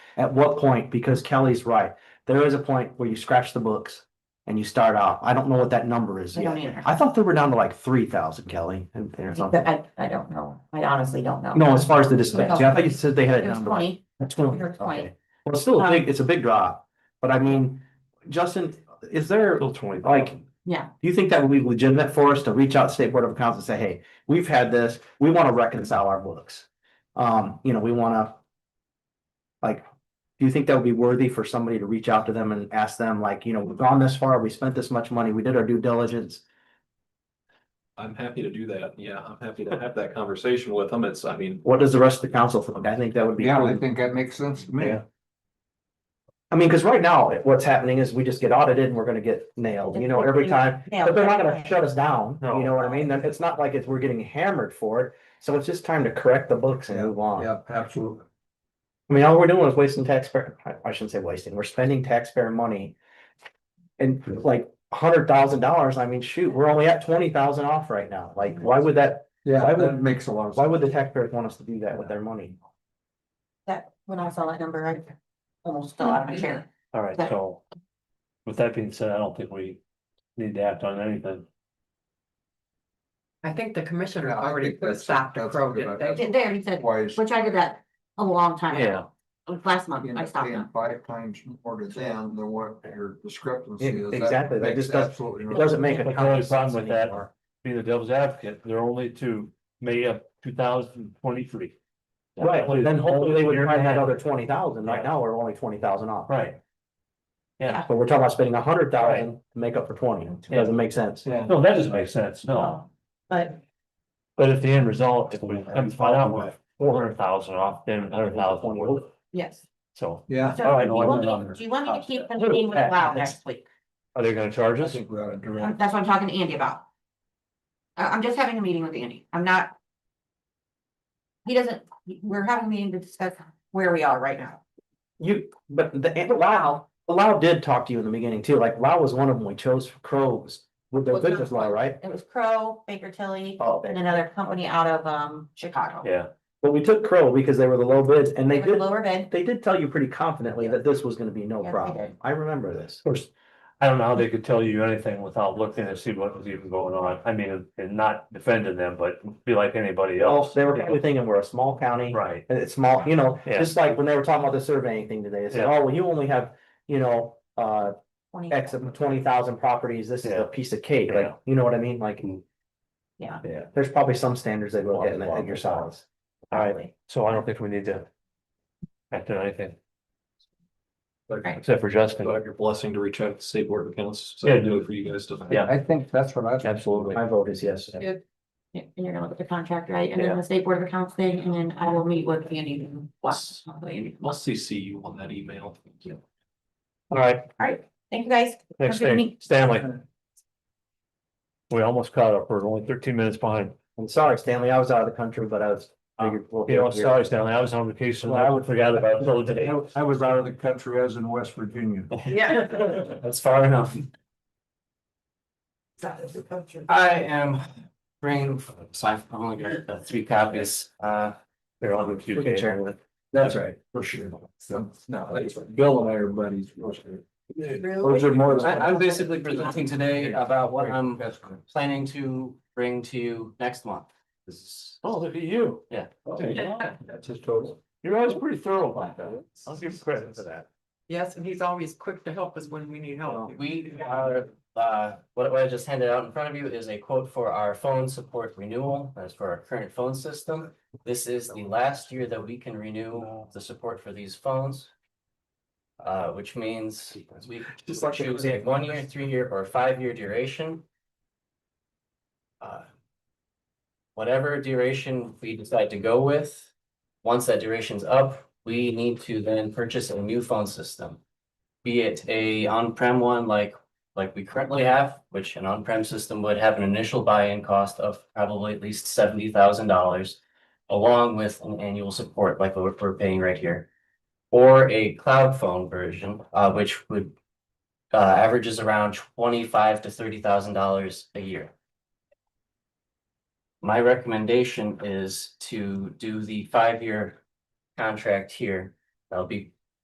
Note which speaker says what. Speaker 1: at what point, because Kelly's right, there is a point where you scratch the books and you start off. I don't know what that number is
Speaker 2: I
Speaker 1: yet.
Speaker 2: don't either.
Speaker 1: I thought they were down to like three thousand, Kelly, and and or something.
Speaker 2: I, I don't know. I honestly don't know.
Speaker 1: No, as far as the dispatch, yeah, I thought you said they had it
Speaker 2: It was
Speaker 1: down to like
Speaker 2: twenty.
Speaker 1: That's twenty,
Speaker 2: Or
Speaker 1: okay.
Speaker 2: 20.
Speaker 1: Well, it's still a big, it's a big drop, but I mean, Justin, is there, do
Speaker 3: Still twenty.
Speaker 1: Like-
Speaker 2: Yeah,
Speaker 1: you think that would be legitimate for us to reach out to state board of accounts and say, hey, we've had this, we wanna reconcile our books? Um, you know, we wanna. Like, do you think that would be worthy for somebody to reach out to them and ask them, like, you know, we've gone this far, we spent this much money, we did our due diligence?
Speaker 3: I'm happy to do that. Yeah, I'm happy to have that conversation with them. It's, I mean,
Speaker 1: What does the rest of the council think? I think that would be.
Speaker 4: Yeah, I think that makes sense to me.
Speaker 1: Yeah. I mean, cause right now, what's happening is we just get audited and we're gonna get nailed, you know, every time.
Speaker 2: yeah.
Speaker 1: But they're not gonna shut us down,
Speaker 3: No.
Speaker 1: you know what I mean? Then It's not like it's, we're getting hammered for it, so it's just time to correct the books and move on.
Speaker 4: Yeah, absolutely.
Speaker 1: I mean, all we're doing is wasting taxpayer, I- I shouldn't say wasting, we're spending taxpayer money. And like a hundred thousand dollars, I mean, shoot, we're only at twenty thousand off right now, like, why would that, Why
Speaker 4: Yeah,
Speaker 1: would-
Speaker 4: that makes a lot of
Speaker 1: why
Speaker 4: sense.
Speaker 1: would the taxpayers want us to do that with their money?
Speaker 2: That, when I saw that number, I almost fell out of my chair.
Speaker 5: All right,
Speaker 2: That-
Speaker 5: so. With that being said, I don't think we need to act on anything.
Speaker 6: I think the commissioner
Speaker 4: Yeah, I
Speaker 6: already
Speaker 4: think
Speaker 6: put a
Speaker 4: that's-
Speaker 6: stop to
Speaker 4: that's
Speaker 6: Crow,
Speaker 4: good
Speaker 6: didn't
Speaker 4: idea.
Speaker 6: they?
Speaker 2: They already said,
Speaker 4: Wise,
Speaker 2: which I did that a long time ago. It was Last month,
Speaker 4: you
Speaker 2: I
Speaker 4: know,
Speaker 2: stopped
Speaker 4: paying
Speaker 2: them.
Speaker 4: five times more to them than what your discrepancy
Speaker 1: Yeah,
Speaker 4: is.
Speaker 1: exactly. That
Speaker 4: makes
Speaker 1: just does-
Speaker 4: absolutely
Speaker 1: It
Speaker 4: no
Speaker 1: doesn't make a
Speaker 5: But the
Speaker 1: ton
Speaker 5: only
Speaker 1: of sense
Speaker 5: problem with that-
Speaker 1: anymore.
Speaker 5: Being the devil's advocate, they're only to May of two thousand twenty-three.
Speaker 1: Right, then hopefully they would
Speaker 5: Year and a
Speaker 1: find that
Speaker 5: half.
Speaker 1: other twenty thousand, right now we're only twenty thousand off.
Speaker 5: Right. Yeah,
Speaker 1: But we're talking about spending a hundred thousand to make up for twenty, it doesn't make sense.
Speaker 4: Yeah.
Speaker 5: no, that doesn't make sense,
Speaker 1: Oh.
Speaker 5: no,
Speaker 2: Um, But
Speaker 5: but if the end result, if we come to find out we're four hundred thousand off, then hundred thousand,
Speaker 2: yes.
Speaker 5: so.
Speaker 4: Yeah,
Speaker 2: So
Speaker 5: All right,
Speaker 2: do
Speaker 5: no,
Speaker 2: you
Speaker 5: I
Speaker 2: want
Speaker 5: wouldn't
Speaker 2: me- do you want me to keep
Speaker 1: Oh,
Speaker 5: understand.
Speaker 2: continuing with WOW next week?
Speaker 5: Are they gonna charge
Speaker 4: I
Speaker 5: us?
Speaker 4: think we ought to direct.
Speaker 2: That's what I'm talking to Andy about. I, I'm just having a meeting with Andy. I'm not. He doesn't, we're having a meeting to discuss where we are right now.
Speaker 1: You, but the, and Lau, Lau did talk to you in the beginning too, like Lau was one of them we chose for crows with their
Speaker 2: Well, it's not-
Speaker 1: business law, right?
Speaker 2: It was Crow, Baker Tilly,
Speaker 1: Oh,
Speaker 2: and another company out of, um, Chicago.
Speaker 5: Yeah,
Speaker 1: but we took crow because they were the low bids and
Speaker 2: They
Speaker 1: they
Speaker 2: were the
Speaker 1: did,
Speaker 2: lower bid.
Speaker 1: they did tell you pretty confidently that this was gonna be no
Speaker 2: Yeah, they
Speaker 1: problem.
Speaker 2: did.
Speaker 1: I remember this.
Speaker 5: of course, I don't know how they could tell you anything without looking to see what was even going on, I mean, and not defending them, but be like anybody
Speaker 1: Well,
Speaker 5: else.
Speaker 1: they were
Speaker 5: you know?
Speaker 1: probably thinking we're a small county
Speaker 5: Right,
Speaker 1: and it's small, you know,
Speaker 5: Yeah.
Speaker 1: just like when they were talking about the surveying thing today, they said,
Speaker 5: Yeah.
Speaker 1: oh, well, you only have, you know, uh,
Speaker 2: 20.
Speaker 1: X of twenty thousand properties, this is
Speaker 5: Yeah.
Speaker 1: a piece of cake,
Speaker 5: Yeah.
Speaker 1: like, you know what I mean, like.
Speaker 2: Yeah.
Speaker 5: Yeah.
Speaker 1: There's probably some standards they look at in- in your
Speaker 5: Lots of laws.
Speaker 1: size.
Speaker 5: all right, so I don't think we need to. Act on anything,
Speaker 3: like,
Speaker 2: Right.
Speaker 5: except for Justin,
Speaker 3: so I have your blessing to reach out to state board of accounts. So
Speaker 5: Yeah.
Speaker 3: I do it for you guys to.
Speaker 5: Yeah.
Speaker 4: I think that's what I,
Speaker 5: absolutely,
Speaker 1: My vote is yes.
Speaker 2: Yeah, And you're gonna look at the contract, right? And then the state board of accounts thing, and then I will meet with Andy and watch. Andy.
Speaker 3: I'll CC you on that email.
Speaker 5: all right,
Speaker 2: Thank you, guys.
Speaker 5: next
Speaker 2: Have a good
Speaker 5: thing,
Speaker 2: meeting.
Speaker 5: Stanley. We almost caught up, we're only thirteen minutes behind,
Speaker 1: I'm sorry, Stanley, I was out of the country, but I was.
Speaker 4: Uh,
Speaker 1: figured we'll
Speaker 5: you
Speaker 1: get
Speaker 5: know,
Speaker 1: here.
Speaker 5: sorry Stanley, I was on vacation, I would forget about it until today.
Speaker 4: I was out of the country, I was in West Virginia.
Speaker 5: That's far enough.
Speaker 7: I am bringing, so I've only got uh, three copies, uh,
Speaker 5: They're on the
Speaker 1: We
Speaker 5: queue.
Speaker 1: can share with.
Speaker 4: That's right, for sure. So, no, that's right. Bill and I are buddies. for sure. Those are more.
Speaker 7: I, I'm basically presenting today about what I'm
Speaker 4: That's good.
Speaker 7: planning to bring to you next month. This is.
Speaker 5: Oh, look at you, Oh,
Speaker 4: That's his total.
Speaker 5: you're always pretty thorough like that, I'll give you credit for that.
Speaker 6: Yes, and he's always quick to help us when we need help.
Speaker 7: We are, uh, what what I just handed out in front of you is a quote for our phone support renewal, that's for our current phone system. This is the last year that we can renew the support for these phones. Uh, which means we
Speaker 3: Just like-
Speaker 7: choose a one year, three year, or five year duration. Uh, Whatever duration we decide to go with, once that duration's up, we need to then purchase a new phone system. Be it a on-prem one like, like we currently have, which an on-prem system would have an initial buy-in cost of probably at least seventy thousand dollars. Along with an annual support like what we're paying right here. Or a cloud phone version, uh, which would. Uh, averages around twenty-five to thirty thousand dollars a year. My recommendation is to do the five-year contract here. That'll be